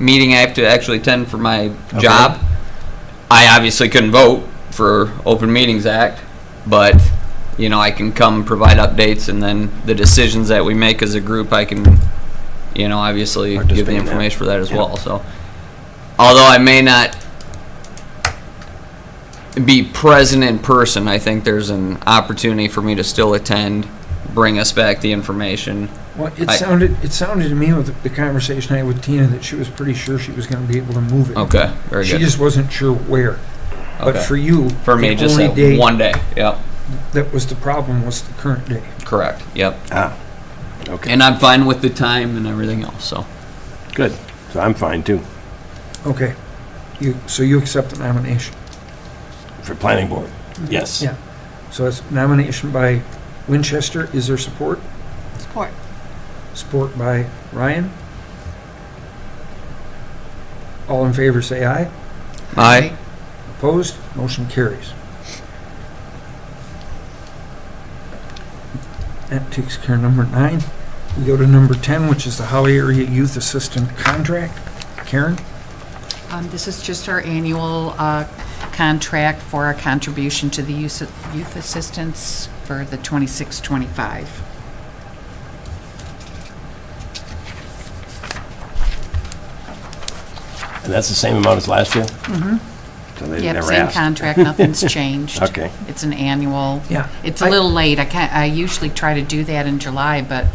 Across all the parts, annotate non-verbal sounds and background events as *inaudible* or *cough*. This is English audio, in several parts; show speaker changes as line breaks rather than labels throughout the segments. meeting I have to actually attend for my job. I obviously couldn't vote for Open Meetings Act, but, you know, I can come provide updates and then the decisions that we make as a group, I can, you know, obviously give
Participate
the
in that.
information for that as
Yeah.
well, so. Although I may not be present in person, I think there's an opportunity for me to still attend, bring us back the information.
Well, it
I-
sounded, it sounded to me with the conversation I had with Tina that she was pretty sure she was gonna be able to move it.
Okay, very
She
good.
just wasn't sure where. But
Okay.
for you,
For me,
the
just
only
that
day
one day, yep.
that was the problem was the current day.
Correct. Yep.
Ah, okay,
And I'm fine with the time and everything else. So
good. So I'm fine too,
Okay. You, so you accept the nomination.
for planning board. Yes.
Yeah. So it's nomination by Winchester. Is there support?
Support.
Support by Ryan. All in favor, say aye.
I
Opposed? Motion carries. That takes care of number nine. We go to number 10, which is the Holly Area Youth Assistant Contract. Karen?
Um, This is just our annual uh, contract for our contribution to the use of youth assistance for the 26-25.
And that's the same amount as last year? Mm-hmm. So they
Yep,
never
same
asked? *laughs*
contract, nothing's changed.
Okay.
It's an annual.
Yeah.
It's a
I-
little late. I can't, I usually try to do that in July, but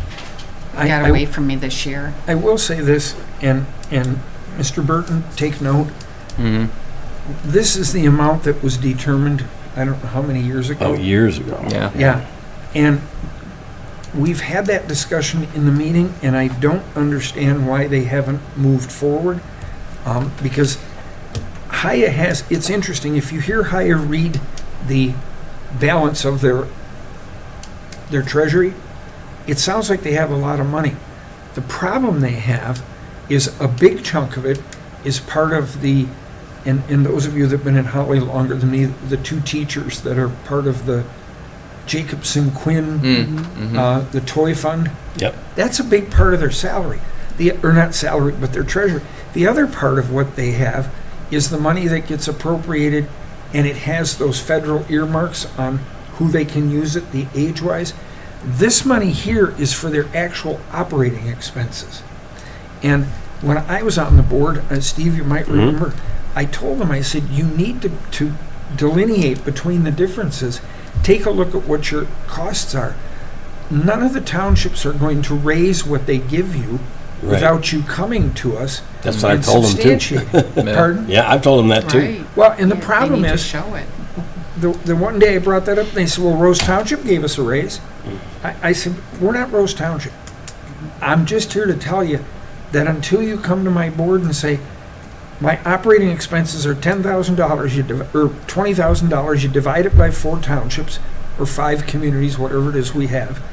I-
it got
I-
away from me this year.
I will say this, and, and Mr. Burton, take note.
Mhm.
This is the amount that was determined, I don't know how many years ago.
Oh, years ago.
Yeah.
Yeah, and we've had that discussion in the meeting, and I don't understand why they haven't moved forward. Um, because Haya has, it's interesting, if you hear Haya read the balance of their, their treasury, it sounds like they have a lot of money. The problem they have is a big chunk of it is part of the, and, and those of you that have been in Holly longer than me, the two teachers that are part of the Jacobson Quinn,
Mm-hmm.
uh, the toy fund.
Yep.
That's a big part of their salary. The, or not salary, but their treasury. The other part of what they have is the money that gets appropriated and it has those federal earmarks on who they can use it, the age wise. This money here is for their actual operating expenses. And when I was on the board, uh, Steve, you might
Mm-hmm.
remember, I told them, I said, you need to, to delineate between the differences. Take a look at what your costs are. None of the townships are going to raise what they give you
Right.
without you coming to us
That's what I
and
told them too.
*laughs*
substantiating. Pardon?
Yeah, I've told them that too.
Right.
Well, and the
Yeah, they
problem
need to
is,
show it.
the, the one day I brought that up, and they said, well, Rose Township gave us a raise.
Mm.
I, I said, we're not Rose Township. I'm just here to tell you that until you come to my board and say, my operating expenses are ten thousand dollars, you, div- or twenty thousand dollars, you divide it by four townships, or five communities, whatever it is we have,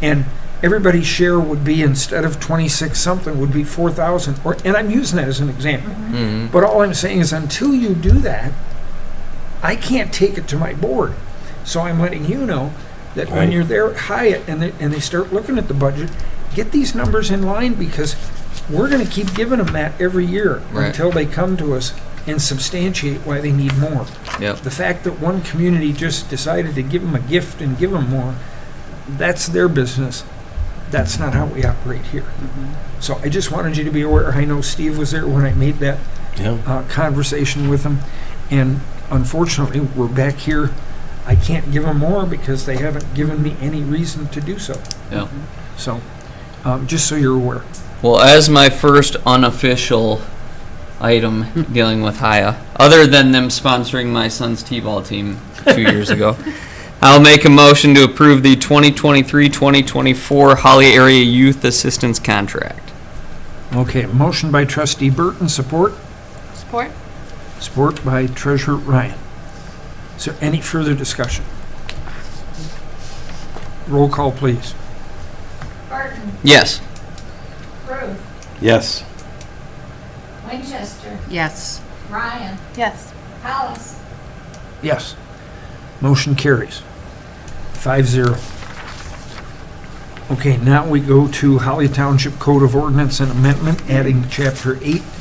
and everybody's share would be, instead of twenty-six something, would be four thousand, or, and I'm using that as an example.
hmm
But all I'm saying is until you do that, I can't take it to my board. So I'm letting you know that when
Right.
you're there at Hyatt and they, and they start looking at the budget, get these numbers in line because we're gonna keep giving them that every year
Right.
until they come to us and substantiate why they need more.
Yep.
The fact that one community just decided to give them a gift and give them more, that's their business. That's not how we operate here.
Mm-hmm.
So I just wanted you to be aware. I know Steve was there when I made that
Yeah,
uh, conversation with them, and unfortunately, we're back here. I can't give them more because they haven't given me any reason to do so.
Yeah.
So, um, just so you're aware.
Well, as my first unofficial item
*laughs*
dealing with Haya, other than them sponsoring my son's t-ball team two years
*laughs*
ago, I'll make a motion to approve the 2023-2024 Holly Area Youth Assistance Contract.
Okay, motion by trustee Burton, support,
Support?
support by treasurer Ryan. Is there any further discussion? Roll call, please.
Barton,
Yes.
Ruth,
yes.
Winchester,
Yes.
Ryan,
Yes.
Hollis,
Yes. Motion carries. Five zero. Okay, now we go to Holly Township Code of Ordinance and Amendment, adding Chapter 8,